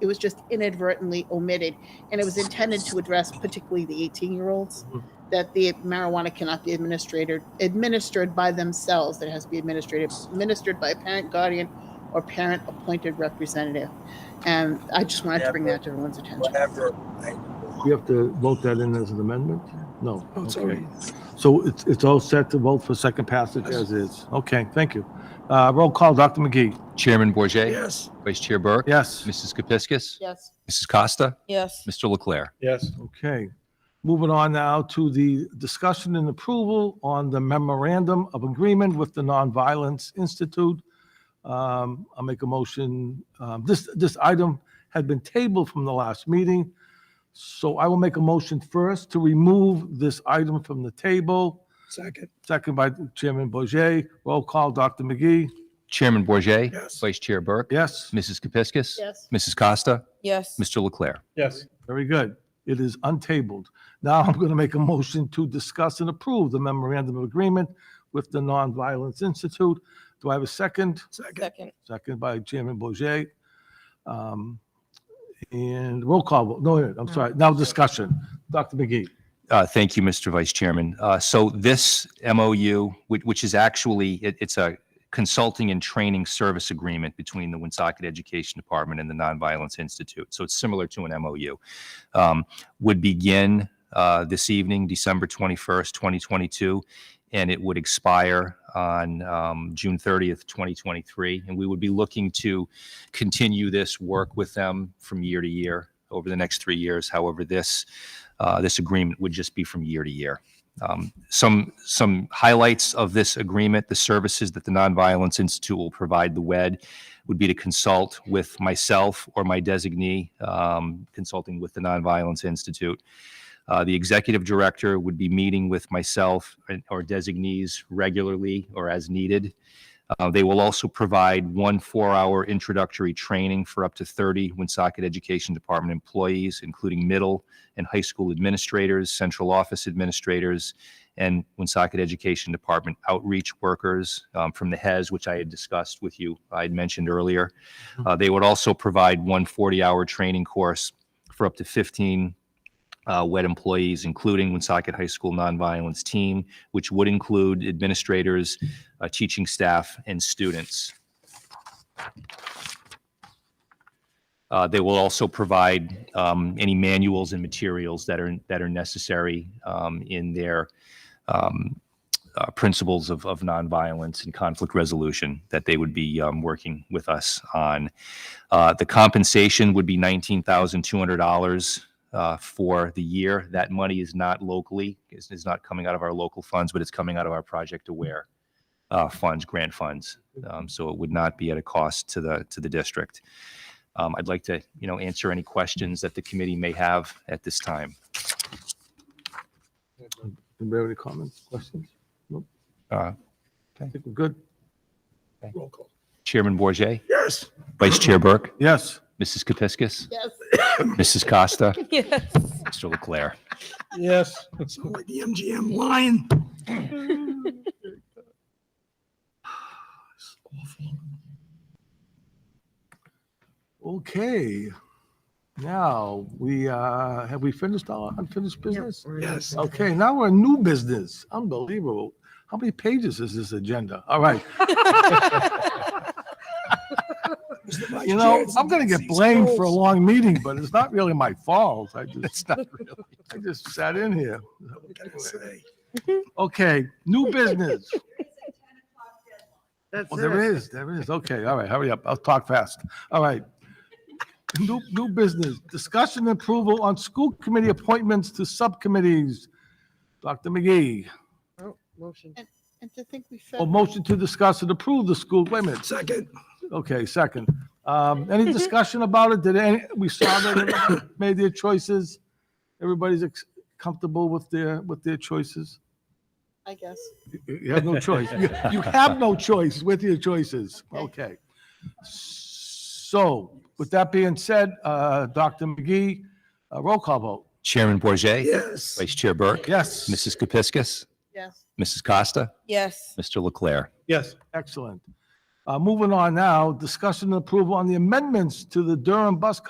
It was just inadvertently omitted, and it was intended to address particularly the 18-year-olds, Mhm. that the marijuana cannot be administered, administered by themselves. It has to be administered, administered by a parent, guardian, or parent-appointed representative. And I just wanted to bring that to everyone's attention. whatever. We have to vote that in as an amendment? No. Oh, it's Okay. already- So it's, it's all set to vote for second passage as is. Okay, thank you. Uh, roll call, Dr. McGee. Chairman Bourget, Yes. Vice Chair Burke. Yes. Mrs. Kepiscus. Yes. Mrs. Costa. yes, Mr. Leclerc. Yes. Okay. Moving on now to the discussion and approval on the memorandum of agreement with the Nonviolence Institute. Um, I'll make a motion. Um, this, this item had been tabled from the last meeting. So I will make a motion first to remove this item from the table. Second. Second by Chairman Bourget. Roll call, Dr. McGee. Chairman Bourget, Yes. Vice Chair Burke. Yes. Mrs. Kepiscus. Yes. Mrs. Costa. yes, Mr. Leclerc. Yes. Very good. It is untabled. Now I'm going to make a motion to discuss and approve the memorandum of agreement with the Nonviolence Institute. Do I have a second? Second. second, Second by Chairman Bourget. Um, And roll call, vote. no, wait, I'm sorry, now discussion. Dr. McGee. Uh, Thank you, Mr. Vice Chairman. Uh, So this MOU, which which is actually, it- it's a consulting and training service agreement between the Woonsocket Education Department and the Nonviolence Institute. So it's similar to an MOU. Um, Would begin uh, this evening, December 21st, 2022, and it would expire on um, June 30th, 2023. And we would be looking to continue this work with them from year to year over the next three years. However, this uh, this agreement would just be from year to year. Um, Some, some highlights of this agreement, the services that the Nonviolence Institute will provide the WED would be to consult with myself or my designee, um, consulting with the Nonviolence Institute. Uh, The executive director would be meeting with myself and- or designees regularly or as needed. Uh, They will also provide one four-hour introductory training for up to 30 Woonsocket Education Department employees, including middle, and high school administrators, central office administrators, and Woonsocket Education Department outreach workers um, from the HES, which I had discussed with you, I had mentioned earlier. Uh, They would also provide one 40-hour training course for up to 15 uh, WED employees, including Woonsocket High School Nonviolence Team, which would include administrators, uh, teaching staff, and students. Uh, They will also provide um, any manuals and materials that are, that are necessary um, in their um, uh, principles of, of nonviolence and conflict resolution that they would be um, working with us on. Uh, The compensation would be $19,200 uh, for the year. That money is not locally, is, is not coming out of our local funds, but it's coming out of our Project Aware uh, funds, grant funds. Um, So it would not be at a cost to the, to the district. Um, I'd like to, you know, answer any questions that the committee may have at this time. Anybody have any comments, questions? Nope. Uh, I think we're good. Roll call. Chairman Bourget, Yes. Vice Chair Burke, Yes. Mrs. Kepiscus, Yes. Mrs. Costa, yes, Mr. Leclerc. Yes. Sound like the MGM lion. Okay. Now, we, uh, have we finished our unfinished business? Yes. Okay, now we're in new business. Unbelievable. How many pages is this agenda? All right, Mr. you Vice Chair, know, it's I'm gonna the get disease blamed for a rolls. long meeting, but it's not really my fault. I just, It's not really. I just sat in here. What can I say? Okay, new business. Well, there is, there is. Okay, all right, hurry up. I'll talk fast. All right. New, new business, discussion and approval on school committee appointments to subcommittees. Dr. McGee, And to think we or felt. motion to discuss and approve the school, wait a minute, Second. Okay, second. Um, any discussion about it? Did any, we saw that everybody made their choices? Everybody's ex- comfortable with their, with their choices? I guess. You you have no choice. You- You have no choice with your choices. Okay. So with that being said, uh, Dr. McGee, uh, roll call vote. Chairman Bourget, Yes. Vice Chair Burke, Yes. Mrs. Kepiscus, Yes. Mrs. Costa, yes, Mr. Leclerc. Yes. Excellent. Uh, moving on now, discussion and approval on the amendments to the Durham Bus